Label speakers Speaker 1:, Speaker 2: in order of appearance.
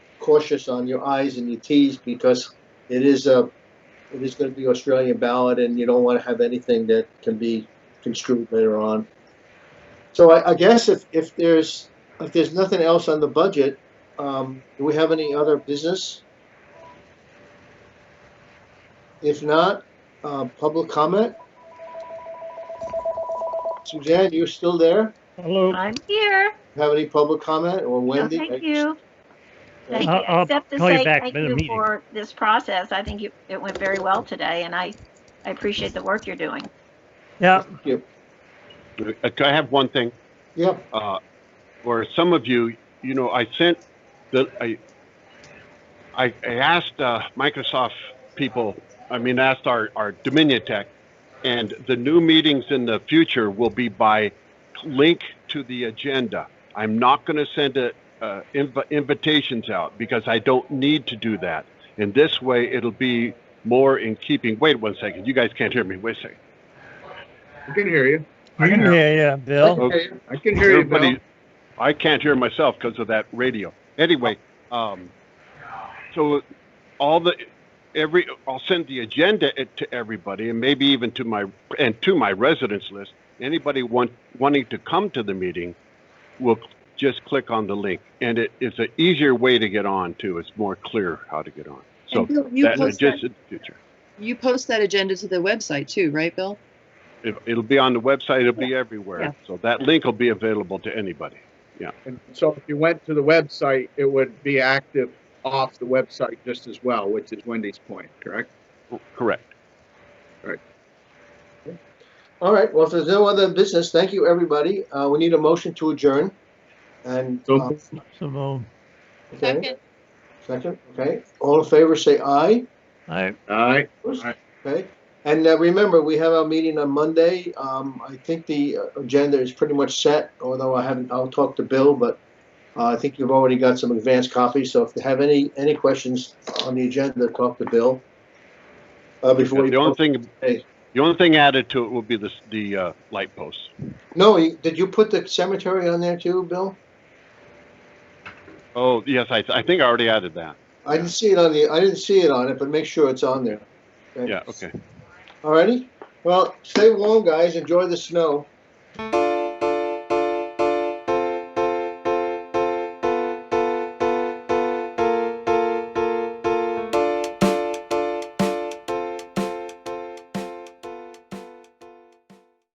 Speaker 1: cautious on your i's and your t's because it is a, it is going to be Australian ballot, and you don't want to have anything that can be construed later on. So I, I guess if, if there's, if there's nothing else on the budget, um, do we have any other business? If not, uh, public comment? Suzanne, you still there?
Speaker 2: Hello,
Speaker 3: I'm here.
Speaker 1: Have any public comment or
Speaker 3: No,
Speaker 1: Wendy?
Speaker 3: thank you. Thank you,
Speaker 2: I'll- I'll
Speaker 3: except to
Speaker 2: call you
Speaker 3: say
Speaker 2: back
Speaker 3: thank
Speaker 2: in the
Speaker 3: you
Speaker 2: meeting.
Speaker 3: for this process. I think you- it went very well today, and I, I appreciate the work you're doing.
Speaker 2: yeah,
Speaker 4: Uh, Can I have one thing?
Speaker 1: Yeah,
Speaker 4: Uh, or some of you, you know, I sent the, I, I, I asked, uh, Microsoft people, I mean, asked our, our Dominion Tech, and the new meetings in the future will be by link to the agenda. I'm not going to send a, uh, inv- invitations out because I don't need to do that. In this way, it'll be more in keeping. Wait one second. You guys can't hear me. Wait a second.
Speaker 5: I can hear you. I
Speaker 2: yeah,
Speaker 5: can hear you.
Speaker 2: yeah, Bill.
Speaker 4: Okay.
Speaker 5: I can hear you, Bill.
Speaker 4: Everybody, I can't hear myself because of that radio. Anyway, um, so all the every I'll send the agenda it to everybody, and maybe even to my and to my residence list. Anybody want wanting to come to the meeting will just click on the link, and it is an easier way to get on too. It's more clear how to get on. So
Speaker 6: And Bill, you
Speaker 4: that
Speaker 6: post
Speaker 4: just
Speaker 6: that,
Speaker 4: in the future.
Speaker 6: you post that agenda to the website too, right, Bill?
Speaker 4: It, it'll be on the website. It'll be everywhere.
Speaker 6: Yeah.
Speaker 4: So that link will be available to anybody.
Speaker 5: And so if you went to the website, it would be active off the website just as well, which is Wendy's point, correct?
Speaker 4: Correct.
Speaker 1: all right, well, if there's no other business, thank you, everybody. Uh, we need a motion to adjourn. And,
Speaker 5: So-
Speaker 1: uh,
Speaker 2: Simone,
Speaker 1: okay, second, okay, all in favor, say aye.
Speaker 2: I,
Speaker 5: All right.
Speaker 1: Okay, and uh, remember, we have our meeting on Monday. Um, I think the uh, agenda is pretty much set, although I haven't, I'll talk to Bill, but uh, I think you've already got some advanced copies, so if you have any, any questions on the agenda, talk to Bill. Uh, before
Speaker 4: Yeah,
Speaker 1: you,
Speaker 4: The only thing,
Speaker 1: Hey.
Speaker 4: the only thing added to it will be this, the, uh, light posts.
Speaker 1: no, you- did you put the cemetery on there too, Bill?
Speaker 4: Oh, yes, I, I think I already added that.
Speaker 1: I didn't see it on the, I didn't see it on it, but make sure it's on there.
Speaker 4: Yeah, okay.
Speaker 1: Alrighty, well, stay warm, guys, enjoy the snow.